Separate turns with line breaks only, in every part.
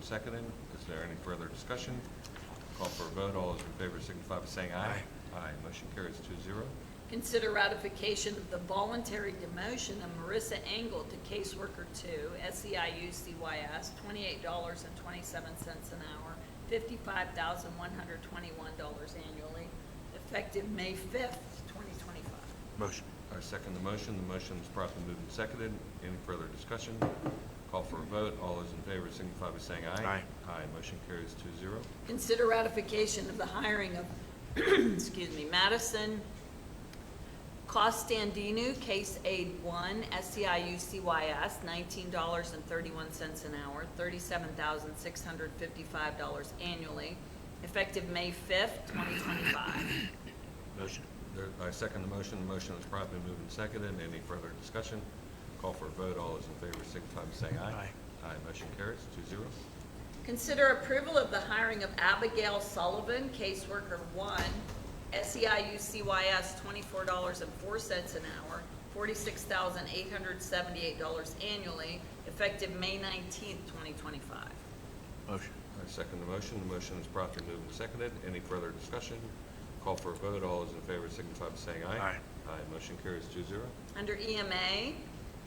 seconded. Is there any further discussion? Call for a vote. All those in favor signify by saying aye. Aye. Motion carries two zero.
Consider ratification of the voluntary demotion of Marissa Engel to caseworker two, E SEIU CYS, twenty-eight dollars and twenty-seven cents an hour, fifty-five thousand one hundred twenty-one dollars annually, effective May fifth, twenty twenty-five.
Motion.
I second the motion. The motion is promptly moved and seconded. Any further discussion? Call for a vote. All those in favor signify by saying aye.
Aye.
Aye. Motion carries two zero.
Consider ratification of the hiring of, excuse me, Madison Costandino, Case Aid One, SEIU CYS, nineteen dollars and thirty-one cents an hour, thirty-seven thousand six hundred fifty-five dollars annually, effective May fifth, twenty twenty-five.
Motion.
There- I second the motion. The motion is promptly moved and seconded. Any further discussion? Call for a vote. All those in favor signify by saying aye. Aye. Aye. Motion carries two zero.
Consider approval of the hiring of Abigail Sullivan, caseworker one, E SEIU CYS, twenty-four dollars and four cents an hour, forty-six thousand eight hundred seventy-eight dollars annually, effective May nineteenth, twenty twenty-five.
Motion.
I second the motion. The motion is promptly moved and seconded. Any further discussion? Call for a vote. All those in favor signify by saying aye.
Aye.
Aye. Motion carries two zero.
Under EMA,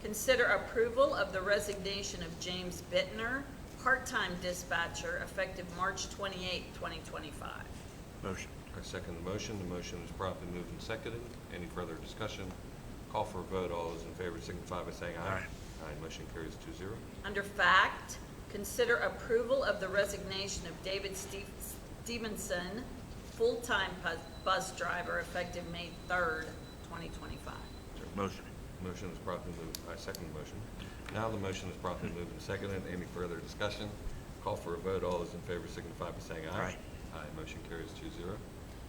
consider approval of the resignation of James Bittner, part-time dispatcher, effective March twenty-eighth, twenty twenty-five.
Motion.
I second the motion. The motion is promptly moved and seconded. Any further discussion? Call for a vote. All those in favor signify by saying aye.
Aye.
Aye. Motion carries two zero.
Under fact, consider approval of the resignation of David Steve- Stevenson, full-time bus- bus driver, effective May 3rd, 2025.
Motion.
Motion is promptly moved. I second the motion. Now the motion is promptly moved and seconded. Any further discussion? Call for a vote. All those in favor signify by saying aye.
Aye.
Aye. Motion carries two zero.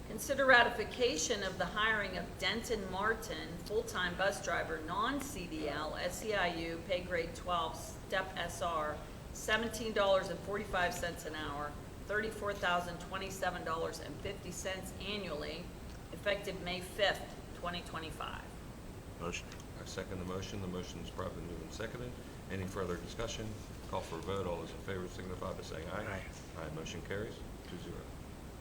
Consider ratification of the hiring of Denton Martin, full-time bus driver, non-CDL, SEIU, E pay grade 12, step SR, $17.45 an hour, $34,027.50 annually, effective May 5th, 2025.
Motion.
I second the motion. The motion is promptly moved and seconded. Any further discussion? Call for a vote. All those in favor signify by saying aye.
Aye.
Aye. Motion carries two zero.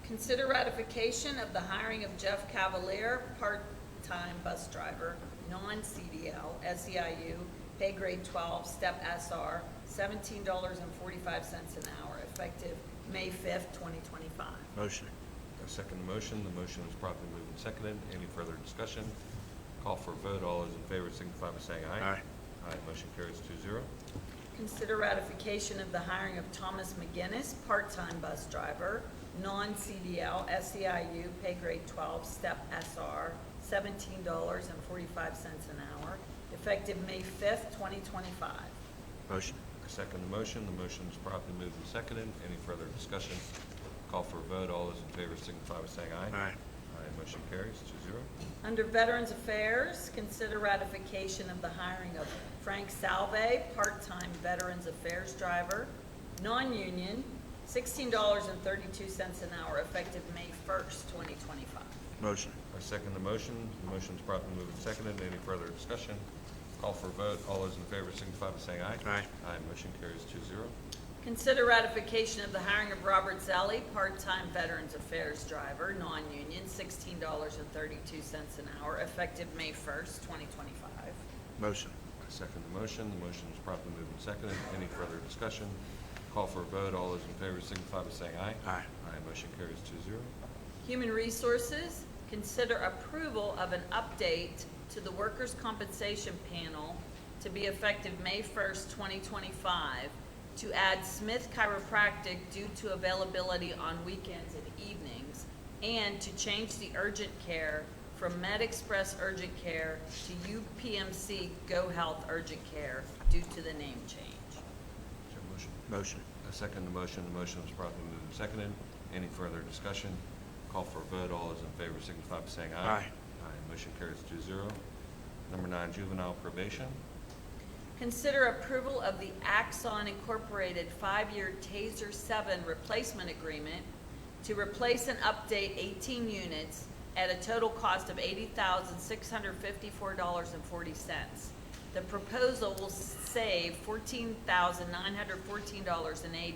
Consider ratification of the hiring of Jeff Cavalier, part-time bus driver, non-CDL, SEIU, E pay grade 12, step SR, $17.45 an hour, effective May 5th, 2025.
Motion.
I second the motion. The motion is promptly moved and seconded. Any further discussion? Call for a vote. All those in favor signify by saying aye.
Aye.
Aye. Motion carries two zero.
Consider ratification of the hiring of Thomas McGinnis, part-time bus driver, non-CDL, SEIU, E pay grade 12, step SR, $17.45 an hour, effective May 5th, 2025.
Motion.
I second the motion. The motion is promptly moved and seconded. Any further discussion? Call for a vote. All those in favor signify by saying aye.
Aye.
Aye. Motion carries two zero.
Under Veterans Affairs, consider ratification of the hiring of Frank Salve, part-time Veterans Affairs driver, non-union, sixteen dollars and thirty-two cents an hour, effective May first, twenty twenty-five.
Motion.
I second the motion. The motion is promptly moved and seconded. Any further discussion? Call for a vote. All those in favor signify by saying aye.
Aye.
Aye. Motion carries two zero.
Consider ratification of the hiring of Robert Zelli, part-time Veterans Affairs driver, non-union, sixteen dollars and thirty-two cents an hour, effective May first, twenty twenty-five.
Motion.
I second the motion. The motion is promptly moved and seconded. Any further discussion? Call for a vote. All those in favor signify by saying aye.
Aye.
Aye. Motion carries two zero.
Human Resources, consider approval of an update to the workers' compensation panel to be effective May 1st, 2025, to add Smith Chiropractic due to availability on weekends and evenings, and to change the urgent care from Med Express Urgent Care to UPMC Go Health Urgent Care due to the name change.
Is there a motion?
Motion.
I second the motion. The motion is promptly moved and seconded. Any further discussion? Call for a vote. All those in favor signify by saying aye.
Aye.
Aye. Motion carries two zero. Number nine, juvenile probation.
Consider approval of the Axon Incorporated five-year TASER 7 replacement agreement to replace and update 18 units at a total cost of $80,654.40. The proposal will save $14,914.80